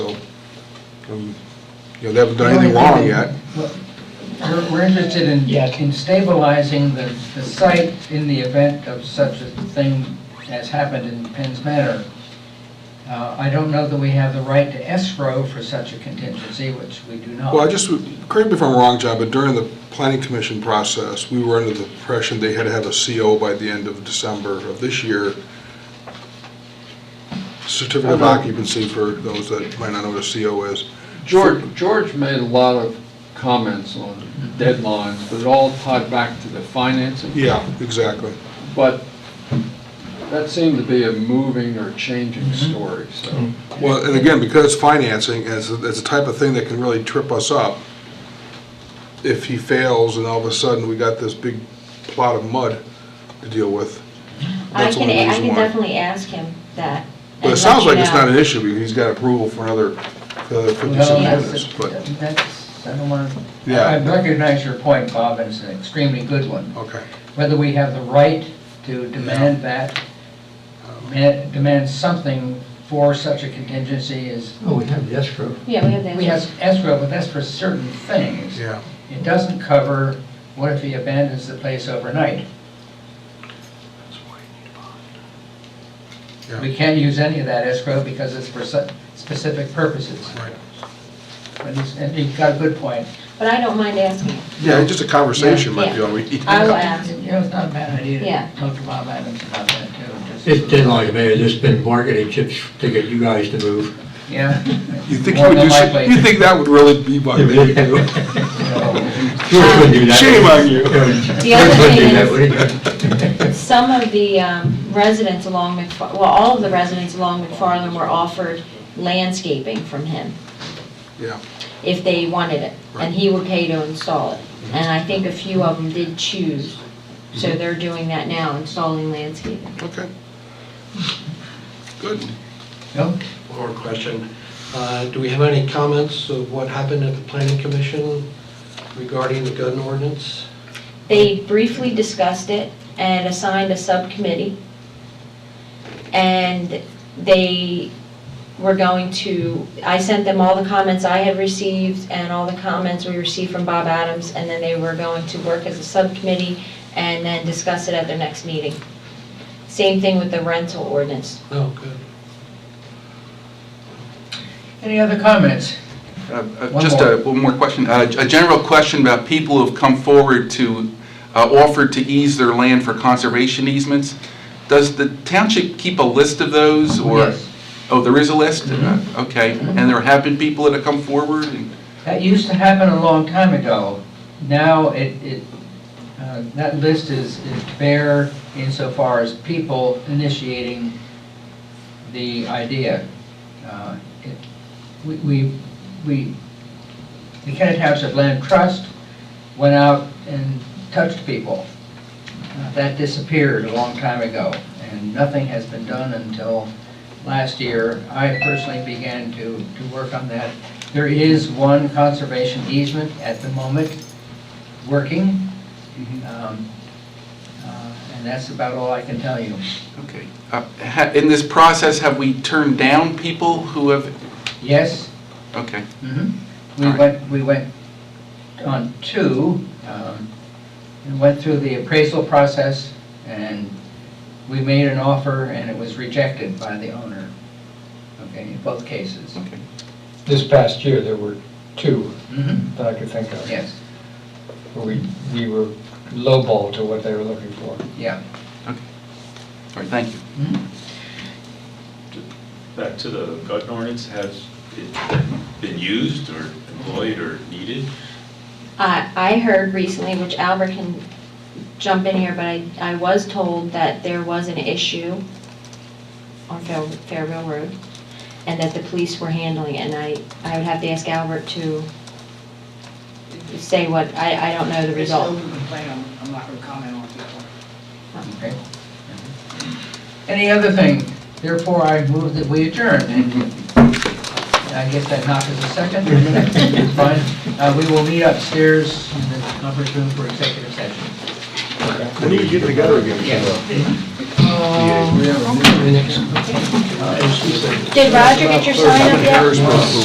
who, Um, you know, they haven't done anything wrong yet. We're, we're interested in, Yeah. in stabilizing the, the site in the event of such a thing as happened in Penn's Manor. Uh, I don't know that we have the right to escrow for such a contingency, which we do not. Well, I just, would- correct me if I'm wrong, John, but during the planning commission process, we were under the impression they had to have a CO by the end of December of this year. Certificate of occupancy for those that might not know what a CO is. George, George made a lot of comments on deadlines, but it all tied back to the financing. Yeah, exactly. But that seemed to be a moving or changing Mm-hmm. story, so. Well, and again, because financing is, is the type of thing that can really trip us up. If he fails and all of a sudden we got this big plot of mud to deal with. I that's can, one I reason can why. definitely ask him that. But it and sounds let like you it's know. not an issue, because he's got approval for another Well, fifty-six that's, units, but, that's, I don't want to, Yeah. I recognize your point, Bob, and it's an extremely good one. okay. Whether we have the right to demand that, ma- demand something for such a contingency is, Oh, we have the escrow. Yeah, we have that. we have escrow, but that's for certain things. Yeah, It doesn't cover, what if he abandons the place overnight? Yeah. We can't use any of that escrow because it's for su- specific purposes. right. And he's- And you've got a good point. But I don't mind asking. Yeah, just a conversation might be all we need. I will ask. You know, it's not a bad idea Yeah. to talk to Bob Adams about that too. It's just- been like, man, it's been marketing chips to get you guys to move. Yeah. You think he More would than do, some- likely. you think that would really be my thing to do? George wouldn't do that. Shame on you. Um, The other George thing is- wouldn't do that, would he? Some of the um, residents along, Mc- well, all of the residents along McFarland were offered landscaping from him Yeah, if they wanted it, Right. and he would pay to install it. And I think a few of them did choose, Mm-hmm. so they're doing that now, installing landscaping. okay. Good. No? One more question. Uh, Do we have any comments of what happened at the planning commission regarding the gun ordinance? They briefly discussed it and assigned a subcommittee. And they were going to, I sent them all the comments I had received and all the comments we received from Bob Adams, and then they were going to work as a subcommittee and then discuss it at their next meeting. Same thing with the rental ordinance. No, good. Any other comments? Uh, uh, One Just more. a, one more question, Uh, a general question about people who have come forward to, uh, offer to ease their land for conservation easements. Does the township keep a list of those, or? Yes. Mm-hmm. Oh, there is a list? Uh, Okay, and there have been people that have come forward? and- That used to happen a long time ago. Now it, it, uh, that list is is bare insofar as people initiating the idea. Uh, it- We, we, we, the Kennet Township Land Trust went out and touched people. Uh, That disappeared a long time ago, and nothing has been done until last year. I personally began to, to work on that. There is one conservation easement at the moment working, Mm-hmm. um, uh, and that's about all I can tell you. Okay. Uh, ha- In this process, have we turned down people who have, Yes, okay, mhm. we All right. went, we went on two, um, and went through the appraisal process, and we made an offer, and it was rejected by the owner, okay, in both cases. okay. This past year, there were two Mhm, that I could think of. Yes, Where we, we were lowballed to what they were looking for. yeah. All right, thank you. Back to the gun ordinance, has it been used or employed or needed? I, I heard recently, which Albert can jump in here, but I, I was told that there was an issue on Fair- Fairville Road, and that the police were handling it, and I, I would have to ask Albert to say what, I, I don't know the result. I'm not gonna comment on that one. Okay. Any other thing? Therefore, I move that we adjourn. And I guess that knock is a second. It's Fine. Uh, We will meet upstairs in the conference room for executive session. When do we get together again? The next Uh, Did Roger get your sign up yet? Harrisburg.